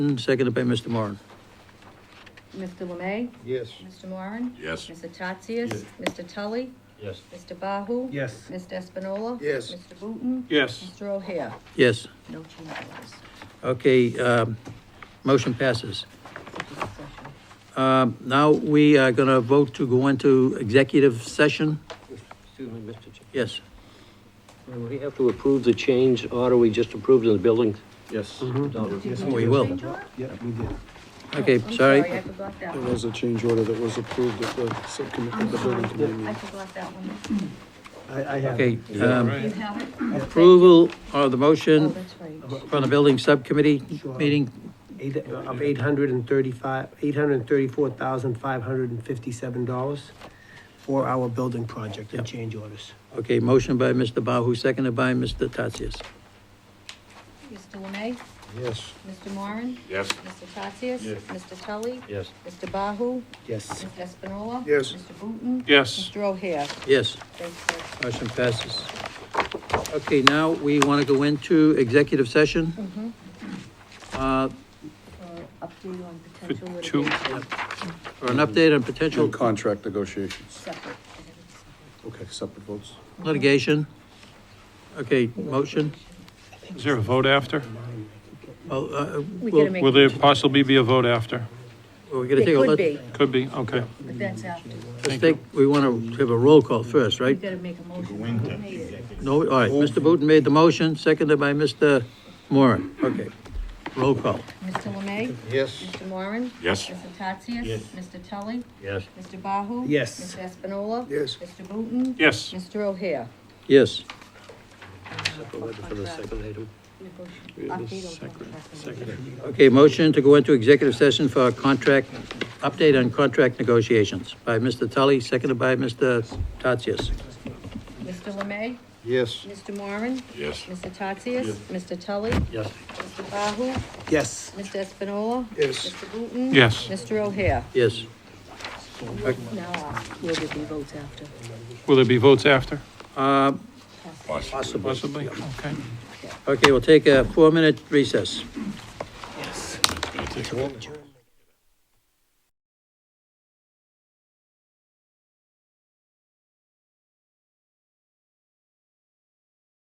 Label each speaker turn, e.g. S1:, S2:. S1: Seconded by Mr. Moran.
S2: Mr. Lemay?
S3: Yes.
S2: Mr. Moran?
S4: Yes.
S2: Mr. Tatsias?
S3: Yes.
S2: Mr. Tully?
S3: Yes.
S2: Mr. Bahu?
S3: Yes.
S2: Mr. Espinola?
S3: Yes.
S2: Mr. Booton?
S3: Yes.
S2: Mr. O'Hare?
S1: Yes,
S2: No change orders.
S1: okay, um, motion passes.
S2: Discussion.
S1: Um, Now, we are going to vote to go into executive session.
S5: Excuse me, Mr. Chair.
S1: Yes,
S5: Do we have to approve the change order we just approved in the building?
S3: Yes.
S5: No.
S3: Yes,
S1: we will.
S2: Change order?
S3: Yeah, Mm-hmm. we did.
S1: Okay,
S2: I'm Sorry, I
S1: sorry.
S2: forgot that
S3: There
S2: one.
S3: was a change order that was approved at the subcommittee,
S2: I'm
S3: the building
S2: sorry,
S3: committee.
S2: I
S3: meeting.
S2: forgot that one.
S3: I, I have.
S1: Okay, um,
S2: You have it?
S1: approval of the
S2: Oh,
S1: motion
S2: that's right.
S1: from the building subcommittee meeting.
S6: Eight- of eight hundred and thirty-five, eight hundred and thirty-four thousand, five hundred and fifty-seven dollars for our building project and change orders.
S1: Okay, motion by Mr. Bahu, seconded by Mr. Tatsias.
S2: Mr. Lemay?
S3: Yes.
S2: Mr. Moran?
S4: Yes.
S2: Mr. Tatsias?
S3: Yes.
S2: Mr. Tully?
S5: Yes.
S2: Mr. Bahu?
S6: Yes.
S2: Mr. Espinola?
S3: Yes.
S2: Mr. Booton?
S4: Yes.
S2: Mr. O'Hare?
S1: Yes,
S2: Thanks, sir.
S1: motion passes. Okay, now we want to go into executive session. Uh,
S2: for update on potential
S4: two-
S2: litigation
S1: For an update on potential
S3: Contract negotiations.
S2: separate.
S3: Okay, separate votes.
S1: litigation. Okay, motion.
S4: Is there a vote after?
S1: Well, uh,
S2: We
S1: well,
S2: gotta make,
S4: Will there possibly be a vote after?
S1: We're gonna
S2: it
S1: take a
S2: could
S1: look.
S2: be,
S4: Could be, okay.
S2: but that's after.
S1: Let's take, we want to have a roll call first,
S2: We
S1: right?
S2: gotta make a motion.
S1: No, all right, Mr. Booton made the motion, seconded by Mr. Moran. Okay, roll call.
S2: Mr. Lemay?
S3: Yes.
S2: Mr. Moran?
S4: Yes.
S2: Mr. Tatsias?
S5: Yes.
S2: Mr. Tully?
S5: Yes.
S2: Mr. Bahu?
S6: Yes.
S2: Mr. Espinola?
S3: Yes.
S2: Mr. Booton?
S4: Yes.
S2: Mr. O'Hare?
S1: Yes,
S5: Waiting for the second item.
S1: okay, motion to go into executive session for a contract, update on contract negotiations by Mr. Tully, seconded by Mr. Tatsias.
S2: Mr. Lemay?
S3: Yes.
S2: Mr. Moran?
S4: Yes.
S2: Mr. Tatsias? Mr. Tully?
S5: Yes.
S2: Mr. Bahu?
S6: Yes.
S2: Mr. Espinola?
S3: Yes.
S2: Mr. Booton?
S4: Yes.
S2: Mr. O'Hare?
S1: Yes,
S2: Now, uh, will there be votes after?
S4: Will there be votes after?
S1: uh,
S4: Possibly. Possibly, okay.
S1: okay, we'll take a four-minute recess.
S4: Yes.
S3: Yes.